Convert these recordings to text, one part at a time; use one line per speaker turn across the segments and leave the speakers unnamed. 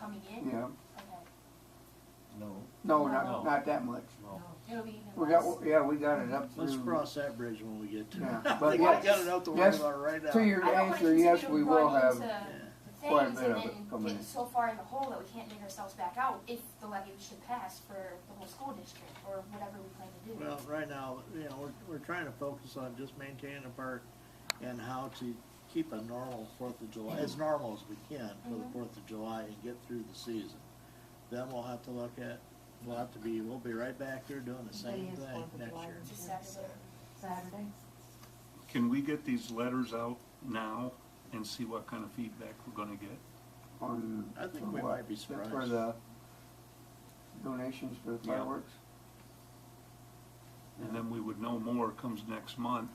coming in?
yeah.
Okay.
No.
No,
No.
not, not that much.
No.
It'll be even
We got,
less.
yeah, we got it up through.
Let's cross that bridge when we get to
Yeah,
it. I
Hmm. but
think I
yes,
got it out the
yes,
window right now.
To your
I don't want
answer,
you
yes,
to
we will
run
have,
into
Yeah.
quite a
Things
bit
and
of it
then
coming
getting
in.
so far in the hole that we can't dig ourselves back out if the levy should pass for the whole school district or whatever we plan to do.
Well, right now, you know, we're, we're trying to focus on just maintaining the park and how to keep a normal Fourth of July, as normal as we can for
Mm-hmm.
the
Mhm.
Fourth of July and get through the season. Then we'll have to look at, we'll have to be, we'll be right back there doing the same
is
thing
Fourth of
next
July.
year.
Just Saturday.
Saturday.
Can we get these letters out now and see what kind of feedback we're gonna get?
on.
I think
for
we
what?
might be
For
surprised.
the donations for the
Yeah.
fireworks?
And then we would know more comes next month,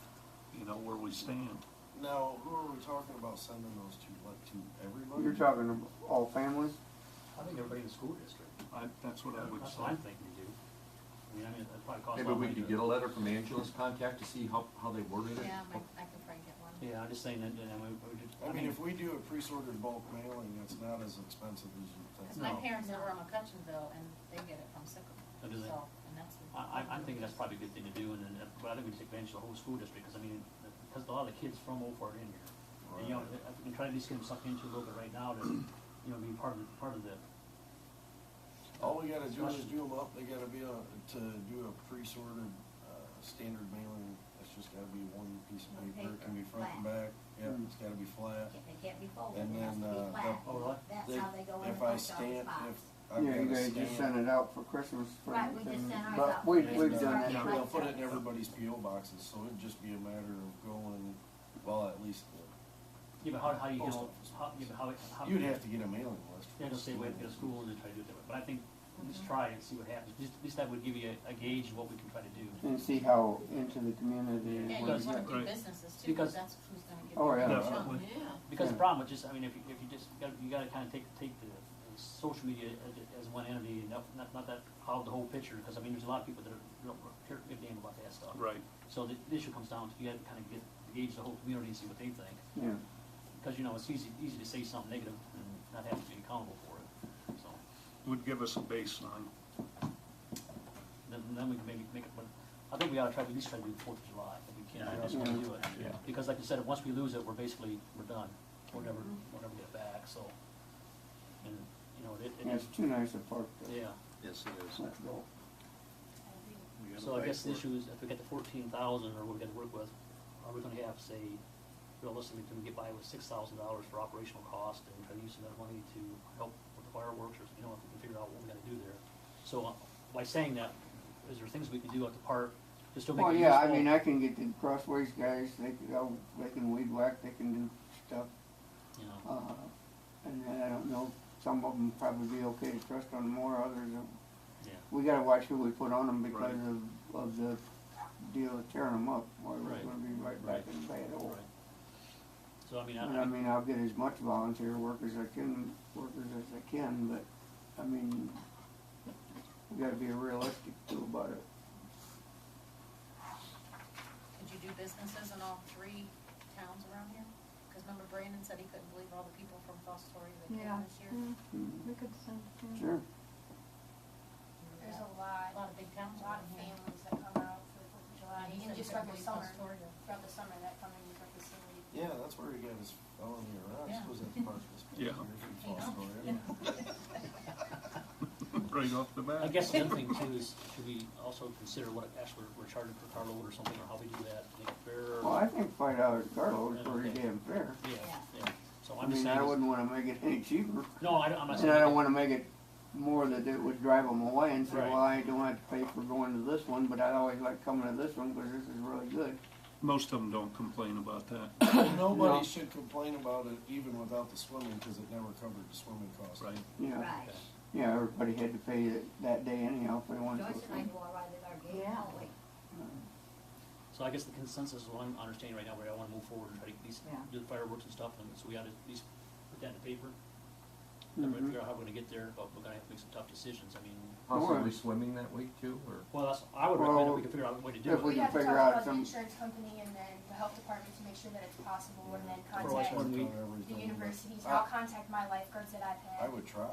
you know, where we stand.
Now, who are we talking about sending those to? Like to everybody?
You're talking of all families?
I think everybody in the school district,
I, that's what I would
that's what I'm
say.
thinking to do. I mean, I mean, that probably costs a
Maybe
lot of
we
money
could
to-
get a letter from Angela's contact to see how, how they worded it.
Yeah, I might- I can probably get one.
Yeah, I'm just saying that, and we, we did,
I mean, if we do a pre-sorted bulk mailing, it's not as expensive as you think.
Because my
No.
parents are from McCutcheonville and they get it from Sycamore.
Oh, do they?
So, and that's.
I, I'm, I'm thinking that's probably a good thing to do, and then, uh, but I think we take advantage of the whole school district, because I mean, because a lot of the kids from Old Fort are in here. And, you know, if we can try to at least get them sucked into a little bit right now to, you know, be part of, part of the,
All we gotta do is do them up, they gotta be a, to do a pre-sorted, uh, standard mailing, it's just gotta be one piece of
One
paper, it can be
paper,
front and back, yeah, it's gotta be flat.
They can't be folded,
And
it has to
then,
be
uh,
flat.
oh, really?
That's
They-
how they go in the
If I
post office
stamp,
box.
if. I've
Yeah, you
gotta
guys just
stamp-
sent it out for Christmas. for
Right, we just
everything.
sent ours out
But
for
we,
And
we've
it's
done
not-
that.
Yeah.
They'll put it in everybody's PO boxes, so it'd just be a matter of going, well, at least, the-
you know, how, how you, you
Post
know,
office.
how, you know, how, it- how.
you'd have to get a mailing list.
Yeah, just say wait for the school and then try to do it that way, but I think, let's try and see what happens, just, at least that would give you a, a gauge of what we can try to do.
And see how into the community.
Yeah,
Yeah,
it
you
works.
wanna do
Right.
businesses too,
Because-
because that's who's gonna get.
Oh,
the
yeah.
big
Yeah.
chunk.
Because the
Yeah.
problem with just, I mean, if you, if you just, you gotta, you gotta kinda take, take the, the social media as, as one entity and not, not, not that, cloud the whole picture, cause I mean, there's a lot of people that are, don't care a damn about that stuff.
Right.
So the, the issue comes down to, you gotta kinda get, gauge the whole community and see what they think,
Yeah.
cause you know, it's easy, easy to say something negative and not have to be accountable for it, so.
Would give us a baseline.
Then, then we can maybe make it, but I think we ought to try, to at least try to do the Fourth of July, if we can, I just wanna do it.
Yeah.
Because like you said, once we lose it, we're basically, we're done, we'll never, we'll never get it back, so. And, you know, it,
Yeah,
it is,
it's too nice a park to
yeah,
Yes, it is.
let go.
We gotta
so I
fight
guess
for
the
it.
issue is, if we get the fourteen thousand, or what we gotta work with, are we gonna have, say, realistically, can we get by with six thousand dollars for operational cost, and try to use some of that money to help with the fireworks, or, you know, if we can figure out what we gotta do there. So, uh, by saying that, is there things we can do at the park, just to make
Well,
it useful?
yeah, I mean, I can get the crossways guys, they can, go- they can weed whack, they can do stuff.
You know?
Uh, and then I don't know, some of them probably be okay to trust on more, others, uh,
Yeah.
we gotta watch who we put on them because of, of the deal of tearing them up. Or we're
Right.
gonna be right back in bad
Right.
old.
So I mean, I,
And I mean, I'll get as much volunteer work as I can, workers as I can, but, I mean, we gotta be realistic too about it.
Could you do businesses in all three towns around here? Cause remember Brandon said he couldn't believe all the people from Fostoria that
Yeah.
came this year?
Mm-hmm.
Mm,
We could send. yeah.
Sure.
There's
Yeah.
a lot,
A lot of big towns
a lot
around
of
here.
families that come out for the Fourth of July,
And he
and
said he
just
couldn't
throughout the
believe
summer,
Fostoria.
throughout the summer that come in, you can see.
Yeah, that's where he got his felony
Yeah.
arrest, was at the park this past year
Yeah.
from Fostoria.
Right off the bat.
I guess the other thing too is, should we also consider what actually we're charging per carload or something, or how we do that, make it fair?
Well, I think five dollars a carload is pretty
Okay.
damn fair.
Yeah,
Yeah.
yeah, so
I
I'm
mean,
just saying,
I
is-
wouldn't wanna make it any cheaper,
no, I, don't- I'm not
and I don't
saying,
wanna make it more that it would drive them away and say,
Right.
well, I don't have to pay for going to this one, but I always like coming to this one, cause this is really good.
Most of them don't complain about that.
No.
Nobody should complain about it even without the swimming, because it never covered the swimming costs.
Right.
Yeah,
Right.
yeah, everybody had to pay it that day anyhow if they wanted to.
Joyce and I go around at our gate,
Yeah.
oh, wait.
so I guess the consensus is what I'm understanding right now, where I wanna move forward and try to at least
Yeah.
do the fireworks and stuff, and so we ought to at least put that in the paper.
Mhm.
Everybody figure out how we're gonna get there, but we're gonna have to make some tough decisions, I mean,
Possibly swimming that week too, or?
well, that's, I would recommend that
Well,
we could figure out a way to do
if
it.
we
We'd
can
have to
figure
talk
out
about the
some,
insurance company and then the health department to make sure that it's possible, and then
Otherwise,
contact
when we-
Cover everything,
the
but
universities, or
I-
I'll contact my lifeguards that I've had.
I would try.